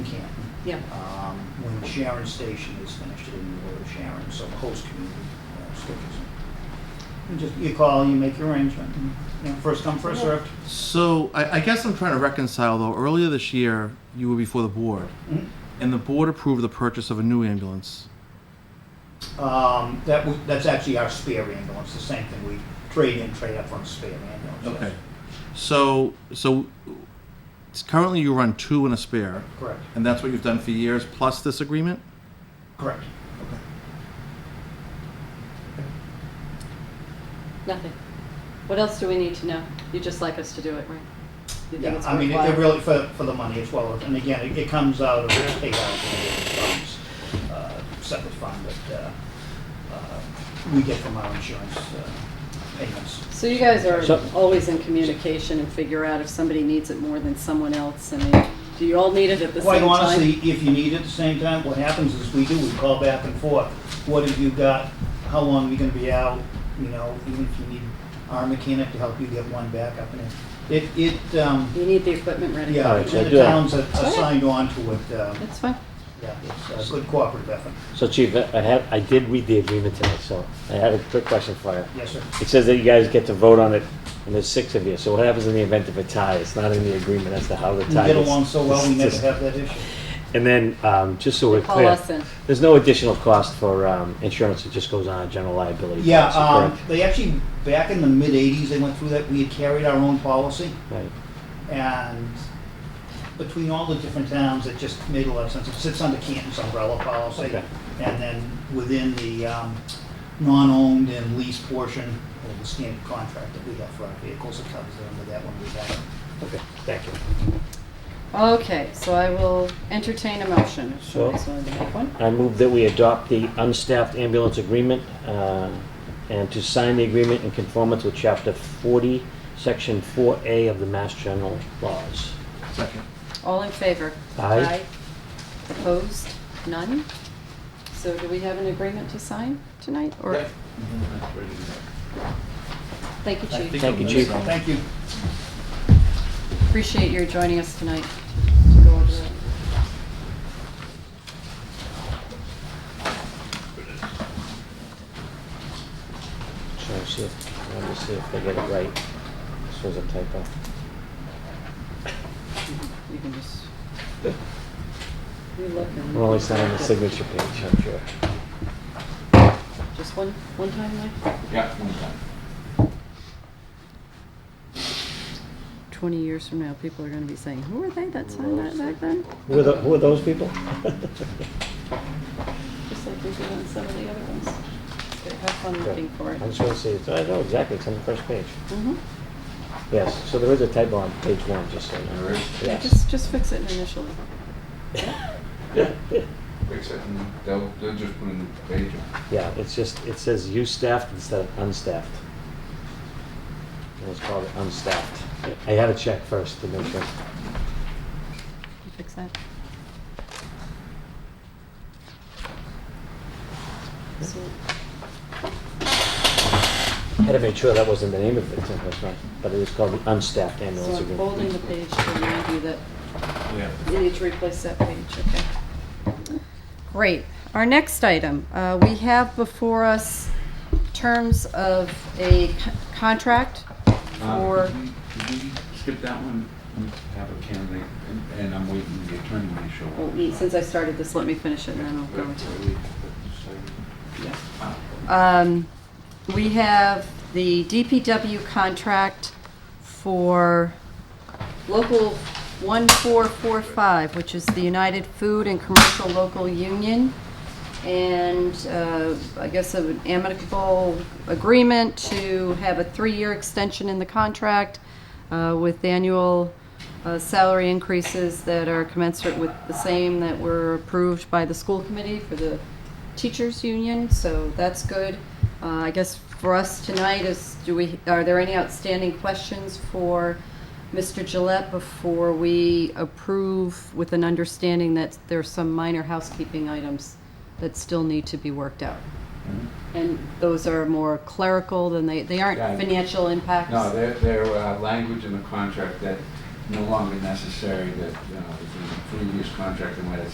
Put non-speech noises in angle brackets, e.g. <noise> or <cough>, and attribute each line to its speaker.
Speaker 1: Yeah.
Speaker 2: um, when Sharon Station is finished, it'll be the word Sharon, so the host community uh, switches. You just, you call, you make your arrangement, and, you know, first come, first served.
Speaker 3: So I, I guess I'm trying to reconcile though. Earlier this year, you were before the board,
Speaker 2: Mhm.
Speaker 3: and the board approved the purchase of a new ambulance.
Speaker 2: Um, that, w- that's actually our spare ambulance, the same thing, we trade in, trade up on spare ambulance. yes.
Speaker 3: So so it's currently you run two and a spare,
Speaker 2: Correct,
Speaker 3: and that's what you've done for years plus this agreement.
Speaker 2: correct.
Speaker 1: Nothing. What else do we need to know? You just like us to do it, right? You think
Speaker 2: Yeah,
Speaker 1: it's
Speaker 2: I mean, it- it
Speaker 1: worthwhile?
Speaker 2: really, for, for the money, it's well, worth- and again, it- it comes out of the state allocated funds, uh, separate fund that, uh, uh, we get from our insurance uh, payments.
Speaker 1: So you guys are
Speaker 4: So-
Speaker 1: always in communication and figure out if somebody needs it more than someone else. I mean, do you all need it at the same
Speaker 2: Quite
Speaker 1: time?
Speaker 2: honestly, if you need it at the same time, what happens is we do, we call back and forth. What have you got? How long are you gonna be out? You know, even if you need our mechanic to help you get one back up and it, it, it, um,
Speaker 1: You need the equipment ready.
Speaker 2: yeah,
Speaker 4: Alright,
Speaker 2: it's
Speaker 4: so
Speaker 2: in the
Speaker 4: I do Oh, have-
Speaker 2: towns that are signed on to it, um,
Speaker 1: That's fine.
Speaker 2: yeah, it's a good cooperative effort.
Speaker 4: So Chief, I I have, I did read the agreement tonight, so I had a quick question for you.
Speaker 2: Yes, sir.
Speaker 4: It says that you guys get to vote on it, and there's six of you, so what happens in the event of a tie? It's not in the agreement as to how the
Speaker 2: We
Speaker 4: tie is.
Speaker 2: get along so well,
Speaker 4: <laughs>
Speaker 2: we never
Speaker 4: Just-
Speaker 2: have that issue.
Speaker 4: And then, um, just so we're
Speaker 1: Call
Speaker 4: clear,
Speaker 1: us in.
Speaker 4: there's no additional cost for, um, insurance, it just goes on a general liability
Speaker 2: Yeah,
Speaker 4: policy,
Speaker 2: um,
Speaker 4: correct?
Speaker 2: they actually, back in the mid-eighties, they went through that, we had carried our own policy,
Speaker 4: Right.
Speaker 2: and between all the different towns, it just made a lot of sense. It sits under Canton's umbrella policy,
Speaker 4: Okay.
Speaker 2: and then within the, um, non-owned and leased portion, of the standard contract that we have for our vehicles, it covers it under that one we have.
Speaker 4: Okay, thank you.
Speaker 1: Okay, so I will entertain a motion. if
Speaker 4: So-
Speaker 1: Somebody's willing to make one.
Speaker 4: I move that we adopt the unstaffed ambulance agreement uh, and to sign the agreement in conformance with Chapter 40, Section 4A of the Mass General Laws.
Speaker 3: Second.
Speaker 1: All in favor?
Speaker 4: Aye.
Speaker 1: Opposed? None? So do we have an agreement to sign tonight, or? Thank you, Chief.
Speaker 4: Thank you, Chief.
Speaker 2: Thank you.
Speaker 1: Appreciate your joining us tonight to go over that.
Speaker 4: Trying to see if, trying to see if they get it right. This was a typo.
Speaker 1: You can just. You look and.
Speaker 4: We're only signing the signature page, I'm sure.
Speaker 1: Just one, one time, Mike?
Speaker 5: Yeah, one time.
Speaker 1: Twenty years from now, people are gonna be saying, who were they that signed that back then?
Speaker 4: Who are tho- Who are those people?
Speaker 1: Just like we did on some of the other ones. But Have fun looking for
Speaker 4: I
Speaker 1: it.
Speaker 4: just want to see, it's- I know exactly, it's on the first page.
Speaker 1: Mhm.
Speaker 4: Yes, so there is a typo on page one, just so you know.
Speaker 5: There is?
Speaker 1: Yeah,
Speaker 4: Yes.
Speaker 1: just, just fix it initially.
Speaker 4: <laughs>
Speaker 5: Except they'll, they'll just put a new page on.
Speaker 4: Yeah, it's just, it says you staffed instead of unstaffed. It was called unstaffed. I had to check first to make sure.
Speaker 1: You fix that. So,
Speaker 4: Had to make sure that wasn't the name of it, so that's right. But it was called the unstaffed ambulance
Speaker 1: so I'm holding the page
Speaker 4: agreement.
Speaker 1: to remind you that
Speaker 5: Yeah.
Speaker 1: You need to replace that page, okay. Great. Our next item, uh, we have before us terms of a c- contract
Speaker 5: Uh-huh.
Speaker 1: for,
Speaker 5: Uh, Did we skip that one? We have a candidate, and- and I'm waiting for the attorney when he show up.
Speaker 1: Well, we- since I started this, let me finish it and then I'll Oh, go into it. Yeah.
Speaker 5: into.
Speaker 1: Um, we have the DPW contract for Local 1445, which is the United Food and Commercial Local Union. And, uh, I guess an amicable agreement to have a three-year extension in the contract, uh, with annual, uh, salary increases that are commensurate with the same that were approved by the school committee for the teachers union, so that's good. Uh, I guess for us tonight is, do we, are there any outstanding questions for Mr. Gillette before we approve with an understanding that there's some minor housekeeping items that still need to be worked out? And those are more clerical than they, they aren't
Speaker 5: Yeah.
Speaker 1: financial impacts?
Speaker 5: No, there, there, uh, language uh, in the contract that no longer necessary, that, you know, the previous contract and what it's